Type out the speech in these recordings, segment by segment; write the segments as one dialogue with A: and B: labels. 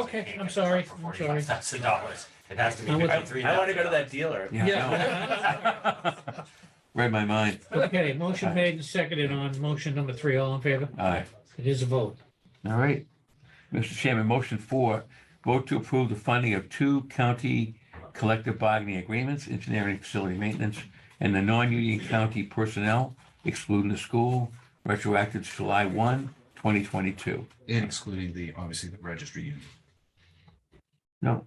A: Okay, I'm sorry,
B: For
A: I'm sorry.
B: forty-five cents a dollar. It has to be
A: I'm with you.
B: fifty-three.
C: I want to go to that dealer.
A: Yeah.
D: Read my mind.
A: Okay, motion made and seconded on motion number three. All in favor?
D: Aye.
A: It is a vote.
D: All right. Mr. Chairman, motion four, vote to approve the funding of two county collective bargaining agreements, engineering facility maintenance, and the non-union county personnel excluding the school, retroactive to July 1, 2022.
E: And excluding the, obviously, the registry union.
D: No,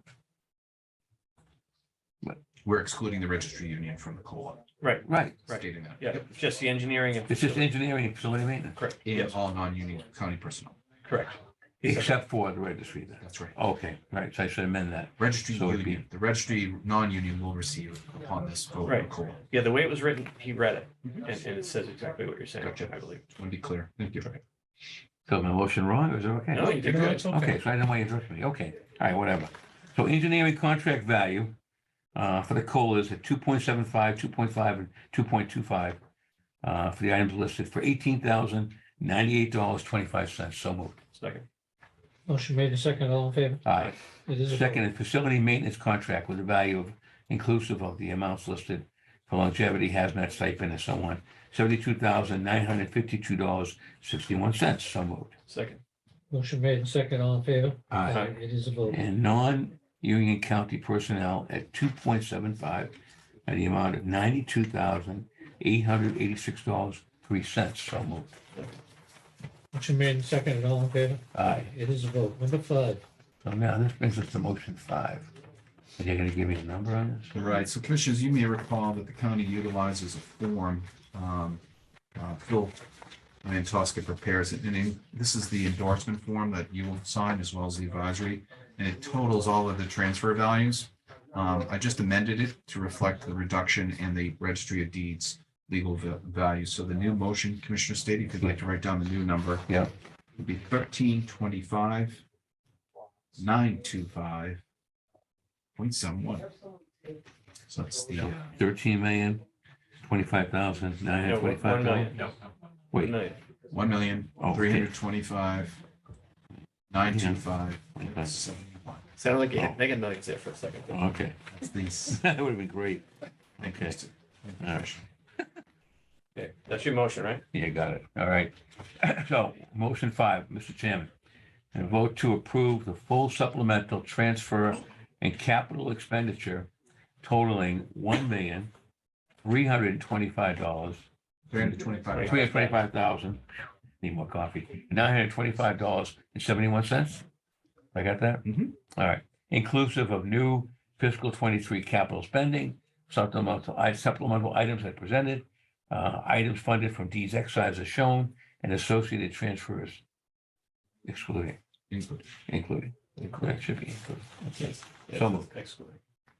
E: We're excluding the registry union from the COLA,
D: right.
C: Right.
E: stating that.
C: Yeah, it's just the engineering and.
D: It's just engineering and facility maintenance,
C: Correct,
E: And
C: yes,
E: all non-union county personnel.
C: correct.
D: except for the registry. then.
E: That's right.
D: Okay, right, so I should amend that.
E: Registry
D: So it'd be-
E: union, the registry non-union will receive upon this vote a
C: Right. Mhm.
E: COLA.
C: Yeah, the way it was written, he read it and, and it says exactly what you're saying,
E: Gotcha.
C: I believe.
E: Just want to be clear. Thank you.
D: So my motion wrong, or is it okay?
C: No, you did
A: No,
C: good.
A: it's okay.
D: Okay, so I didn't want you to interrupt me. Okay, all right, whatever. So engineering contract value uh, for the COLAs at 2.75, 2.5, and 2.25 uh, for the items listed for $18,098.25. So moved.
C: Second,
A: Motion made and seconded. All in favor?
D: Aye.
A: It is a vote.
D: Second, is facility maintenance contract with a value of inclusive of the amounts listed for longevity, hazmat stipend, and so on, $72,952.61. So moved.
C: second,
A: Motion made and seconded. All in favor?
D: Aye.
A: It is a vote.
D: and non-union county personnel at two point seven five at the amount of ninety-two thousand eight hundred eighty-six dollars three cents. So moved.
A: Motion made and seconded. All in favor?
D: Aye.
A: It is a vote. Number five.
D: So now this brings us to motion five. Are you gonna give me a number on this?
E: All right, so commissioners, you may recall that the county utilizes a form, um, uh, Phil Mantosca prepares it, and in- this is the endorsement form that you will sign as well as the advisory, and it totals all of the transfer values. Um, I just amended it to reflect the reduction in the registry of deeds legal va- value, so the new motion, Commissioner State, if you'd like to write down the new number.
D: Yeah.
E: Would be thirteen twenty-five, nine two five, point seven one. So that's the, uh,
D: Thirteen million twenty-five thousand nine
C: no,
D: hundred
C: wait,
D: twenty-five
C: one
D: dollars.
C: million, no, one
D: Wait,
C: million,
E: one million,
D: Oh,
E: three hundred twenty-five, nine two five,
D: Okay.
E: seventy-one.
C: sounded like you
D: Oh.
C: had mega millions there for a second.
D: okay,
E: That's these.
D: that would have been great. Okay, All right.
C: Okay, that's your motion, right?
D: Yeah, got it. All right. So, motion five, Mr. Chairman. And vote to approve the full supplemental transfer and capital expenditure totaling one million, three hundred and twenty-five dollars,
E: Three hundred twenty-five.
D: three hundred twenty-five thousand, need more coffee, nine hundred twenty-five dollars and seventy-one cents. I got that?
E: Mhm.
D: All right. Inclusive of new fiscal twenty-three capital spending, supplemental, i- supplemental items I presented, uh, items funded from these exercises shown, and associated transfers excluding,
E: Included.
D: including, that should be included.
C: Yes,
D: So moved.
C: Excellent.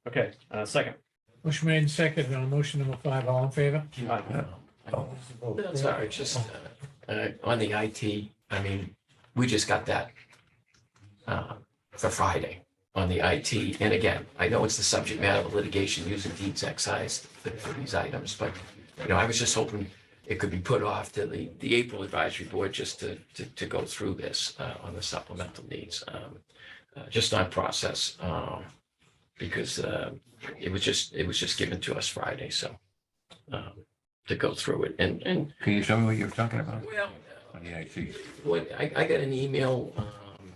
C: Okay, uh, second.
A: Motion made and seconded on motion number five. All in favor?
C: Aye.
A: It is a vote.
F: That's all right, just uh, uh, on the IT, I mean, we just got that uh, for Friday on the IT. And again, I know it's the subject matter of litigation using deeds excise for for these items, but, you know, I was just hoping it could be put off to the, the April advisory board just to, to, to go through this uh, on the supplemental needs, um, uh, just on process. um, Because uh, it was just, it was just given to us Friday, so um, to go through it. And, and
D: Can you show me what you're talking about?
F: well,
D: On the IT,
F: what, I, I got an email, um,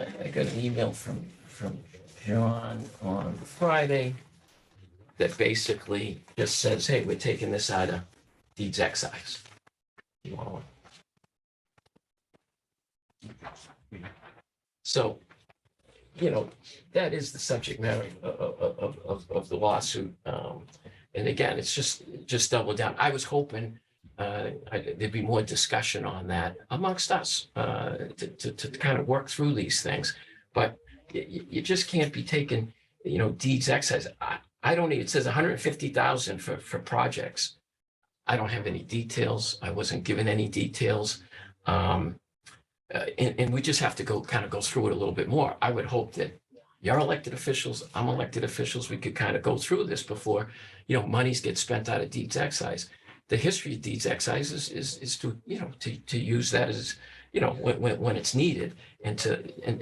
F: I, I got an email from, from John on Friday that basically just says, hey, we're taking this out of deeds excise. You want one? So, you know, that is the subject matter of, of, of- of, of the lawsuit. Um, and again, it's just, just double down. I was hoping uh, I- there'd be more discussion on that amongst us uh, to, to, to kind of work through these things. But you, you just can't be taking, you know, deeds excise. I, I don't even, it says 150,000 for, for projects. I don't have any details. I wasn't given any details. Um, uh, and, and we just have to go, kind of go through it a little bit more. I would hope that your elected officials, I'm elected officials, we could kind of go through this before, you know, monies get spent out of deeds excise the history of deeds excise is, is, is to, you know, to, to use that as, you know, when, when, when it's needed and to, and,